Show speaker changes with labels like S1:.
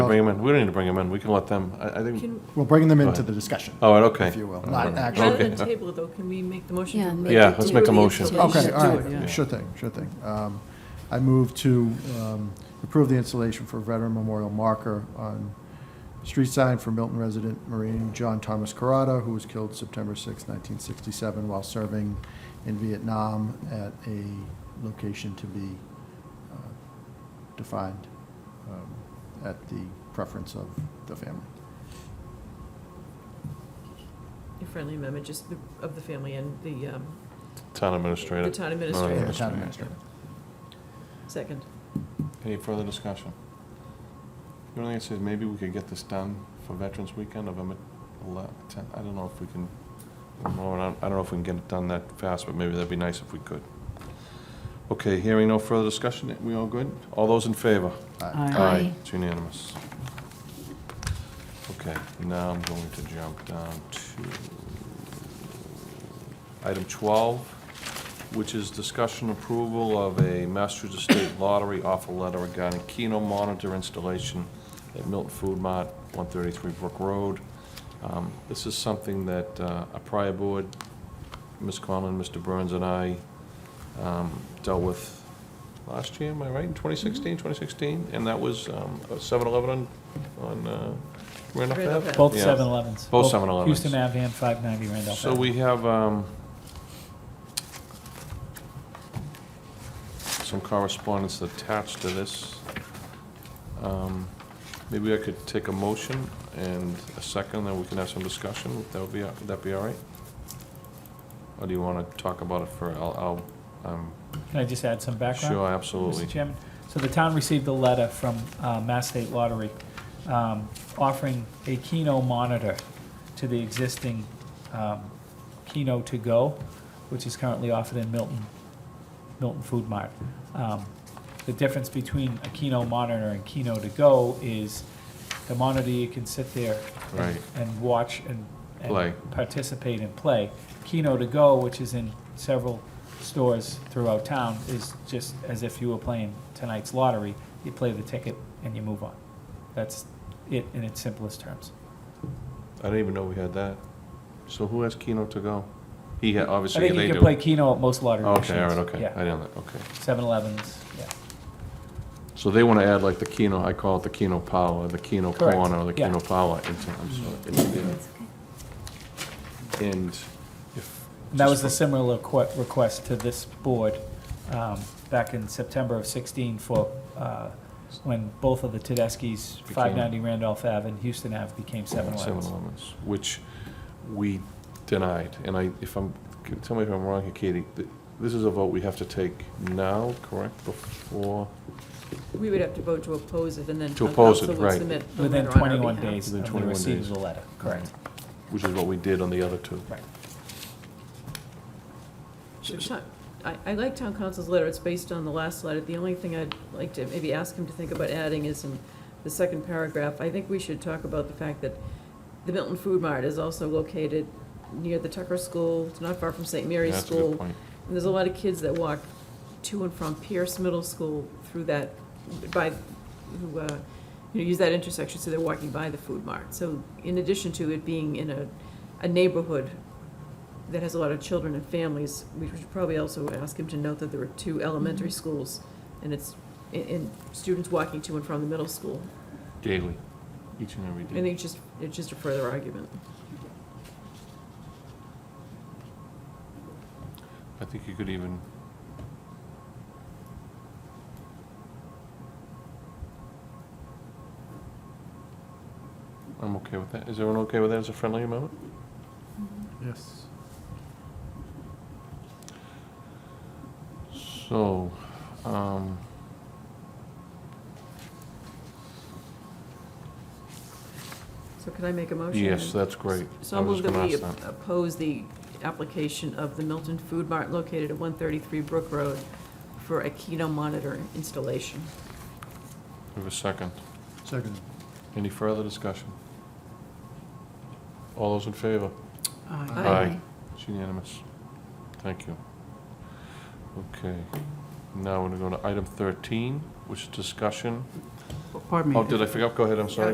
S1: bring him in. We don't need to bring him in. We can let them, I, I think,
S2: Can,
S3: We'll bring them into
S1: ahead. Oh.
S3: the discussion,
S1: all right, okay.
S3: if you will,
S1: Okay.
S3: not
S1: Okay.
S3: action.
S2: rather than table it though, can we make the motion?
S4: Yeah,
S2: to-
S4: make
S1: Yeah, let's make a motion.
S3: Okay,
S4: Yeah,
S3: all
S4: do it,
S3: right, sure thing, sure thing. Um, I move to um, approve the installation for veteran memorial marker on street sign for Milton resident Marine John Thomas Carrata, who was killed September 6, 1967, while serving in Vietnam at a location to be uh, defined um, at the preference of the family.
S2: Your friendly amendment, just the- of the family and the, um,
S1: Town administrator.
S2: The town administrator.
S1: No,
S3: Yeah,
S1: no,
S3: the town
S1: no.
S3: administrator.
S2: second.
S1: Any further discussion? The only thing I say is maybe we could get this done for Veterans Weekend, November 10th. I don't know if we can, I don't know I don't know if we can get it done that fast, but maybe that'd be nice if we could. Okay, hearing no further discussion, we all good? All those in favor?
S4: Aye.
S1: It's unanimous. Okay, now I'm going to jump down to item 12, which is discussion approval of a Massachusetts State Lottery offer letter regarding Keno monitor installation at Milton Food Mart, 133 Brook Road. Um, This is something that uh, a prior board, Ms. Conlon, Mr. Burns, and I um, dealt with last year, am I right, in 2016, 2016? And that was um, a 7-Eleven on- on uh, Randolph
S2: Randolph
S1: Ave?
S2: Ave.
S5: Both
S1: Yeah.
S5: 7-Elevens.
S1: Both 7-Elevens.
S5: Houston Ave and 590 Randolph
S1: So
S5: Ave.
S1: we have um, some correspondence attached to this. Um, Maybe I could take a motion and a second, then we can have some discussion. That would be, would that be all right? Or do you want to talk about it for, I'll, I'll, um,
S5: Can I just add some background?
S1: sure, absolutely.
S5: Mr. Chairman, so the town received a letter from uh, Mass State Lottery um, offering a Keno monitor to the existing um, Keno To Go, which is currently offered in Milton, Milton Food Mart. Um, The difference between a Keno monitor and Keno To Go is the monitor, you can sit there and-
S1: Right.
S5: and watch and and
S1: Play.
S5: participate and play. Keno to go, which is in several stores throughout town, is just as if you were playing tonight's lottery. You play the ticket and you move on. That's it in its simplest terms.
S1: I didn't even know we had that. So who has Keno to go? He, ha-
S5: I
S1: obviously,
S5: think
S1: they
S5: you
S1: do.
S5: can play Keno at most lottery machines.
S1: Okay, all right, okay. I
S5: Yeah,
S1: didn't, okay.
S5: Seven Elevens, yeah.
S1: So they want to add like the Keno, I call it the Keno Power, the Keno
S5: Correct,
S1: Corner, or the
S5: yeah.
S1: Keno Power into, I'm sorry, into there.
S4: That's okay.
S1: And if.
S5: And that was a similar requ- request to this board um, back in September of 16 for, uh, when both of the Tedeschi's,
S1: Became-
S5: 590 Randolph Ave and Houston Ave became
S1: Seven
S5: 7-Elevens.
S1: Elevens, which we denied. And I, if I'm, tell me if I'm wrong here, Katie, th- this is a vote we have to take now, correct, before?
S2: We would have to vote to oppose it and then.
S1: To
S2: town
S1: oppose it,
S2: council would
S1: right.
S2: submit the
S5: Within
S2: letter on our
S5: 21
S2: behalf.
S5: days
S1: Within
S5: of the
S1: 21
S5: receipt
S1: days.
S5: of the letter, correct.
S1: Which is what we did on the other two.
S5: Right.
S2: Should town- I, I like town council's letter, it's based on the last letter. The only thing I'd like to maybe ask him to think about adding is in the second paragraph, I think we should talk about the fact that the Milton Food Mart is also located near the Tucker School, it's not far from St. Mary's
S1: That's a good
S2: School.
S1: point.
S2: And there's a lot of kids that walk to and from Pierce Middle School through that, by, who, uh, you know, use that intersection, so they're walking by the food mart. So in addition to it being in a, a neighborhood that has a lot of children and families, we should probably also ask him to note that there are two elementary schools, and it's, and- and students walking to and from the middle school.
S1: Daily, each and every
S2: I
S1: day.
S2: think it's just, it's just a further argument.
S1: I think you could even. I'm okay with that. Is everyone okay with that as a friendly amendment?
S3: Yes.
S1: So, um.
S2: So can I make a motion?
S1: Yes, that's great.
S2: So
S1: I
S2: I'll
S1: was just
S2: move that
S1: gonna
S2: we
S1: ask that.
S2: oppose the application of the Milton Food Mart located at 133 Brook Road for a Keno monitor installation.
S1: We have a second.
S3: Second.
S1: Any further discussion? All those in favor?
S2: Aye.
S1: It's unanimous. Thank you. Okay, now we're gonna go to item thirteen, which is discussion
S2: pardon me.
S1: Oh, did I forget? Go ahead, I'm sorry.